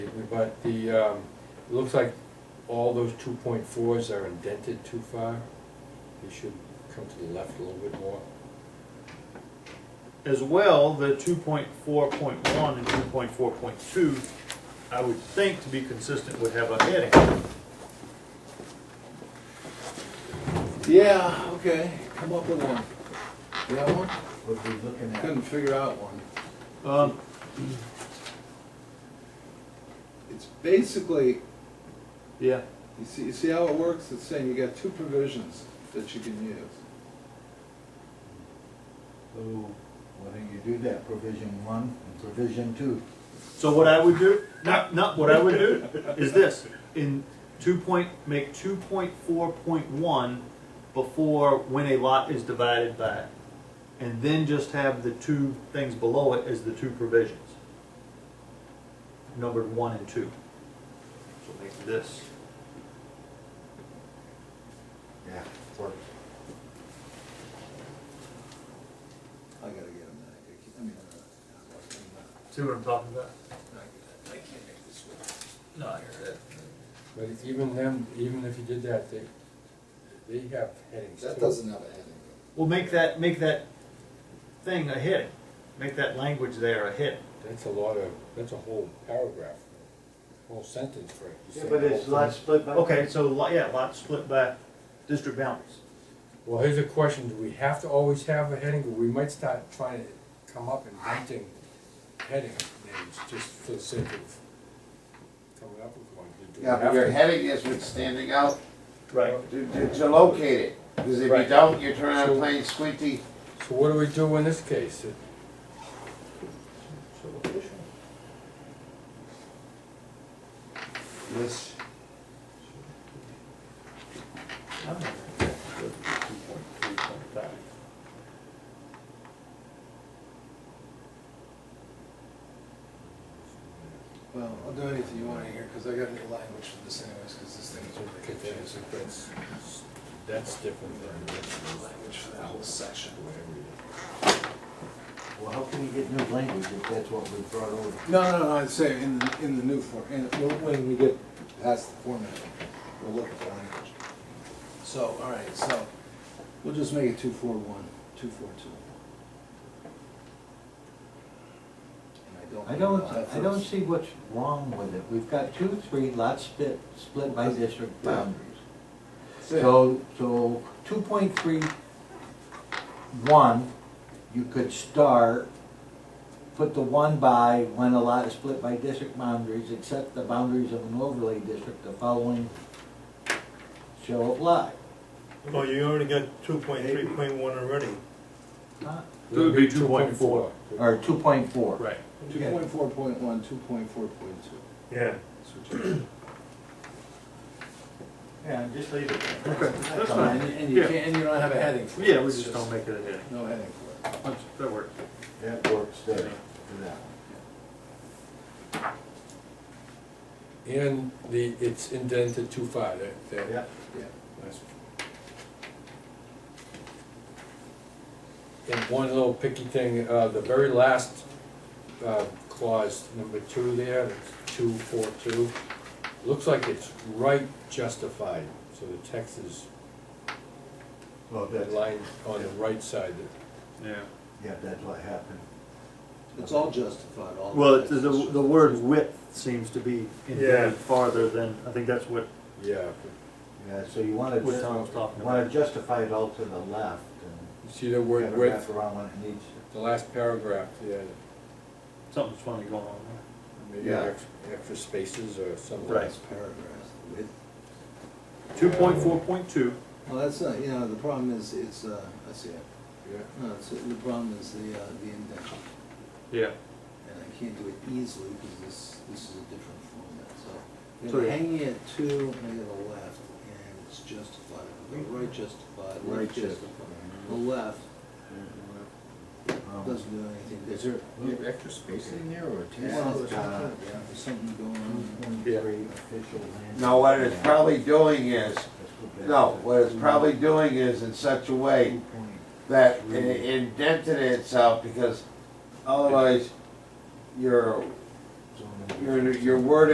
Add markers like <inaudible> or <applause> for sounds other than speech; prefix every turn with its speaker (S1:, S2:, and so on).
S1: but the, um, it looks like all those two point fours are indented too far. They should come to the left a little bit more.
S2: As well, the two point four point one and two point four point two, I would think to be consistent would have a heading.
S3: Yeah, okay, come up with one. You have one?
S4: What we looking at?
S3: Couldn't figure out one.
S2: Um,
S3: It's basically,
S2: yeah,
S3: you see, you see how it works? It's saying you got two provisions that you can use.
S4: So why don't you do that, provision one and provision two?
S2: so what I would do, not, not what I would do, is this, in two point, make two point four point one before when a lot is divided by. And then just have the two things below it as the two provisions. Numbered one and two. So make this.
S4: Yeah. Work.
S3: I gotta get them, I can't- I mean, I'm not- I'm not-
S2: See what I'm talking about?
S3: I'm not good. I can't make this work.
S2: No,
S1: But even them, even if you did that, they, they have headings too.
S5: That doesn't have a heading.
S2: Well, make that, make that thing a hit. Make that language there a hit.
S1: That's a lot of, that's a whole paragraph, whole sentence for it. You
S4: Yeah,
S1: say
S4: but
S1: the
S4: it's
S1: whole
S4: lot
S1: thing.
S4: split by.
S2: Okay, so, lot- yeah, lots split by district boundaries.
S1: Well, here's a question, do we have to always have a heading, or we might start trying to come up inventing heading names just for the sake of coming up with one? Do we
S6: Yeah,
S1: have
S6: but your
S1: to?
S6: heading is what's standing out
S2: Right.
S6: to, to, to locate it, because if you
S1: Right.
S6: don't, you're turning out
S1: So-
S6: plain squinty.
S1: So what do we do in this case? It-
S2: So location.
S4: This,
S2: I don't know. That's two point three point five.
S3: Well, I'll do anything you wanna hear, cause I got new language for this anyways, cause this thing is really
S1: Okay, that's-
S3: confusing.
S1: That's that's different than.
S3: Language for that whole section.
S4: well, how can we get new language if that's what we brought over?
S3: No, no, no, I'd say in, the- in the new form, in, when we get past the format, we'll look at the language. So, all right, so, we'll just make it two four one, two four two. And
S4: I don't,
S3: know that
S4: I don't
S3: first-
S4: see what's wrong with it. We've got two, three lots split, split by district boundaries. So, so two point three one, you could start, put the one by when a lot is split by district boundaries, except the boundaries of an overlay district, the following shall apply.
S7: Well, Oh, you already got two point three point one already.
S4: Huh?
S1: It would be two point four.
S4: Or two point four.
S2: Right.
S3: Two point four point one, two point four point two.
S7: Yeah.
S2: <clears throat>
S4: Yeah, just leave it.
S2: Okay, that's fine.
S3: And, and you
S2: Yeah.
S3: can't, and you don't have a heading for it.
S2: Yeah, we
S3: it's
S2: just don't make it a hit.
S3: No heading for it.
S2: That's- That works.
S4: That works there, for that.
S1: And the, it's indented too far, that, that.
S3: Yeah.
S1: that's- And one little picky thing, uh, the very last, uh, clause, number two there, that's two, four, two, looks like it's right justified, so the text is
S4: Well,
S1: lined on the right side.
S2: Yeah.
S4: yeah, that's what happened.
S3: It's all justified, all.
S2: Well,
S3: the
S2: it's- the, the word width seems to be
S7: Yeah.
S2: indented farther than, I think that's what,
S1: Yeah,
S4: Yeah, so you wanna,
S2: what Tom was talking
S4: wanna
S2: about.
S4: justify it all to the left and
S1: you see the word
S4: kind of wrap
S1: width,
S4: around when it needs to.
S1: the last paragraph, yeah,
S2: Something's funny going on there.
S1: maybe
S6: Yeah.
S1: ex- extra spaces or something.
S2: Right.
S3: Paragraphs with
S2: Two point four point two,
S3: Well, that's not, you know, the problem is, it's, uh, I see it.
S1: Yeah.
S3: No, it's, uh, the problem is the, uh, the indentation,
S2: yeah.
S3: and I can't do it easily because this, this is a different format, so.
S2: So,
S3: They're
S2: yeah.
S3: hanging at two and to the left, and it's justified, the right justified,
S4: Right
S3: left justified. The left
S4: Um,
S3: doesn't do anything.
S6: Is there a little extra space in there or a ten?
S3: Well,
S4: uh, Yeah.
S3: there's something- there's something going on.
S4: One, three, official land-
S6: No, what it's probably doing is,
S4: Let's go back
S6: no,
S4: to
S6: what it's probably doing is in such a way
S4: 2.3.
S6: that it indented itself because otherwise your,
S4: So,
S6: your, your word